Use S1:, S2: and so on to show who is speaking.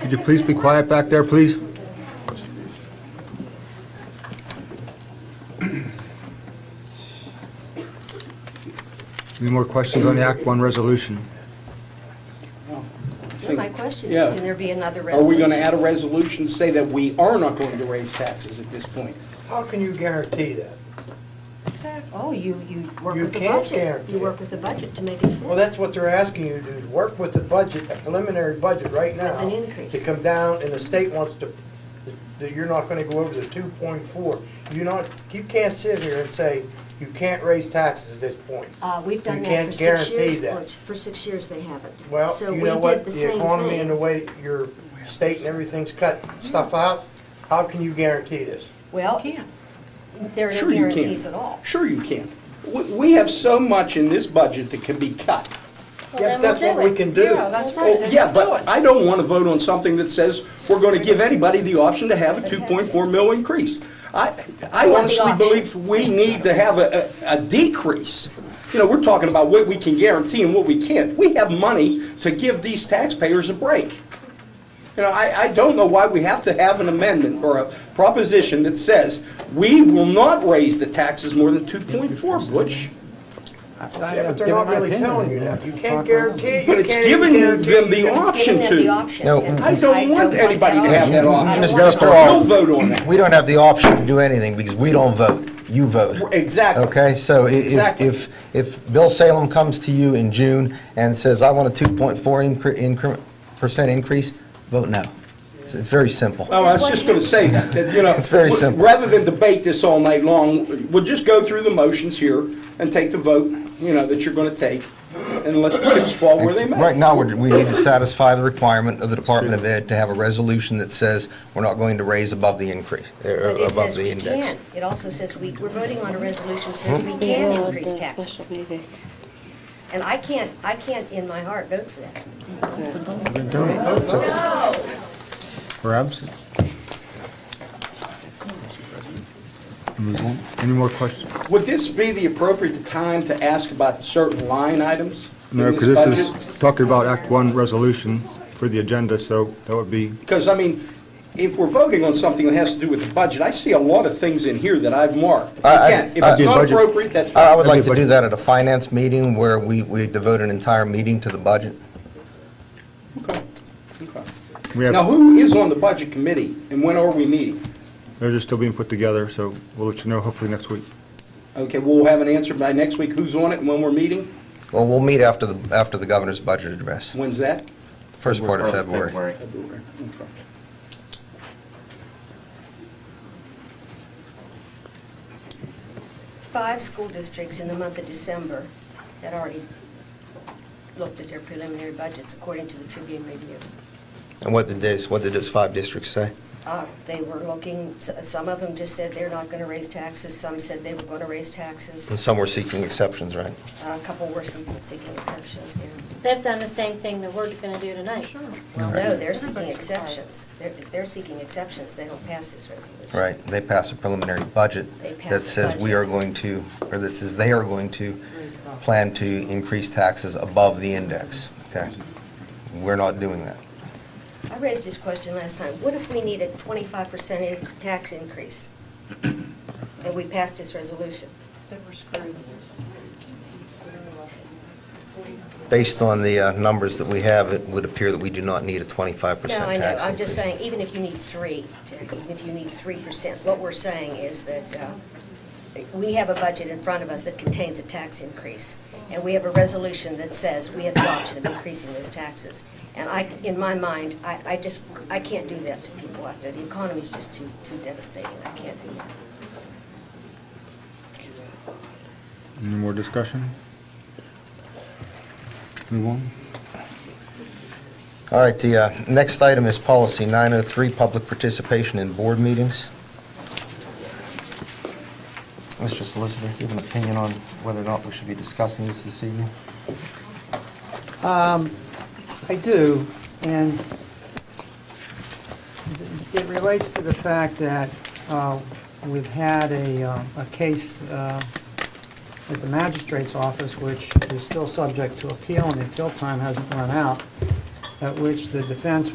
S1: Could you please be quiet back there, please? Any more questions on the Act One resolution?
S2: Well, My question is,
S3: Yeah.
S2: can there be another
S3: Are
S2: resolution?
S3: we going to add a resolution to say that we are not going to raise taxes at this point?
S4: How can you guarantee that?
S2: Exact- Oh, you, you work
S4: You
S2: with the
S4: can't
S2: budget.
S4: guarantee
S2: You
S4: it.
S2: work with the budget to make it
S4: Well,
S2: fit.
S4: that's what they're asking you to do, to work with the budget, a preliminary budget right now.
S2: With an increase.
S4: To come down, and the state wants to, that you're not gonna go over the two point four. You're not, you can't sit here and say, you can't raise taxes at this point.
S2: Uh, we've done
S4: you
S2: that
S4: can't
S2: for six
S4: guarantee
S2: years.
S4: that.
S2: Butch. For six years, they haven't.
S4: Well,
S2: So
S4: you
S2: we
S4: know
S2: did
S4: what,
S2: the
S4: the
S2: same
S4: economy
S2: thing. Mm-hmm.
S4: and the way your state and everything's cutting stuff out, how can you guarantee this?
S2: Well, there are no
S3: Sure you can.
S2: guarantees at all.
S3: Sure you can. We- We have so much in this budget that can be cut.
S4: Yes, that's what we can do.
S5: Yeah, that's right.
S3: Oh,
S5: Then
S3: Yeah,
S5: we'll do
S3: but
S5: it.
S3: I don't want to vote on something that says we're going to give anybody the option to have a 2.4 mil increase. I I
S2: Or the
S3: honestly
S2: option.
S3: believe we need to have a a- a decrease. You know, we're talking about what we can guarantee and what we can't. We have money to give these taxpayers a break. You know, I I don't know why we have to have an amendment or a proposition that says we will not raise the taxes more than 2.4, Butch.
S4: Yeah, but they're not really telling you that. You can't guarantee, it. you
S3: But it's
S4: can't
S3: giving
S4: guarantee
S3: them
S4: you
S3: the
S4: can't-
S2: It's
S3: option
S2: giving them the
S3: to.
S2: option.
S6: No.
S2: and
S3: I don't want
S2: that
S3: anybody to have that
S2: option.
S3: option.
S2: I
S6: Mr.
S2: don't
S6: Gaspar,
S2: want
S3: We'll vote on that.
S6: We don't have the option to do anything because we don't vote. You vote.
S3: Exactly.
S6: Okay, so i- if,
S3: Exactly.
S6: if, if Bill Salem comes to you in June and says, I want a 2.4 incre- incre- percent increase, vote no. It's it's very simple.
S3: Well, Oh, I was just going to say that, that, you know.
S6: It's very
S3: w-
S6: simple.
S3: Rather than debate this all night long, we'll just go through the motions here and take the vote, you know, that you're going to take and let the chips fall where they may.
S6: Right now, we're- we need to satisfy the requirement of the Department of Ed to have a resolution that says we're not going to raise above the increase, er,
S2: But it
S6: above
S2: says
S6: the
S2: we
S6: index.
S2: can. It also says we, we're voting on a resolution that says we can increase taxes. And I can't, I can't in my heart vote for that.
S1: Or absent? Move on. Any more questions?
S3: Would this be the appropriate time to ask about certain line items in
S1: No,
S3: this
S1: because this
S3: budget?
S1: is talking about Act One resolution for the agenda, so that would be,
S3: Because, I mean, if we're voting on something that has to do with the budget, I see a lot of things in here that I've marked.
S6: I- I-
S3: Again, if
S6: I-
S3: it's not
S1: Budget.
S3: appropriate, that's
S6: I I
S3: fine.
S6: would like to do that at a finance meeting where we, we devote an entire meeting to the budget.
S1: we
S3: Now,
S1: have,
S3: who is on the budget committee and when are we meeting?
S1: they're just still being put together, so we'll let you know hopefully next week.
S3: Okay, we'll have an answer by next week, who's on it and when we're meeting?
S6: Well, we'll meet after the, after the governor's budget address,
S3: When's that?
S6: first part of February.
S3: February. Okay.
S2: Five school districts in the month of December had already looked at their preliminary budgets according to the Tribune Review.
S6: And what did this, what did those five districts say?
S2: Uh, They were looking, s- some of them just said they're not going to raise taxes, some said they were going to raise
S6: And
S2: taxes. Uh,
S6: some were seeking exceptions, right?
S2: A couple were seeking seeking exceptions, yeah.
S7: They've done the same thing that we're gonna do tonight. Sure.
S2: Well, no,
S6: Right.
S2: they're seeking exceptions. They're- If they're seeking exceptions, they don't pass this resolution.
S6: Right, they passed a preliminary budget
S2: They passed
S6: that
S2: the
S6: says we
S2: budget.
S6: are going to, or that says they are going to plan to increase taxes above the index, okay? We're not doing that.
S2: I raised this question last time. What if we need a 25% in- tax increase? And we passed this resolution?
S6: Based on the uh, numbers that we have, it would appear that we do not need a 25% tax
S2: No, I know, I'm just
S6: increase.
S2: saying, even if you need three, Jackie, even if you need three percent, what we're saying is that uh, we have a budget in front of us that contains a tax increase, and we have a resolution that says we have the option of increasing those taxes. And I, in my mind, I, I just, I can't do that to people out there. The economy's just too, too devastating, I can't do that.
S1: Any more discussion? Move on.
S6: All right, the uh, next item is policy 903, public participation in board meetings. Mr. Solicitor, do you have an opinion on whether or not we should be discussing this this evening?
S8: I do, and it relates to the fact that uh, we've had a uh, a case uh, at the magistrate's office, which is still subject to appeal, and the appeal time hasn't run out, at which the defense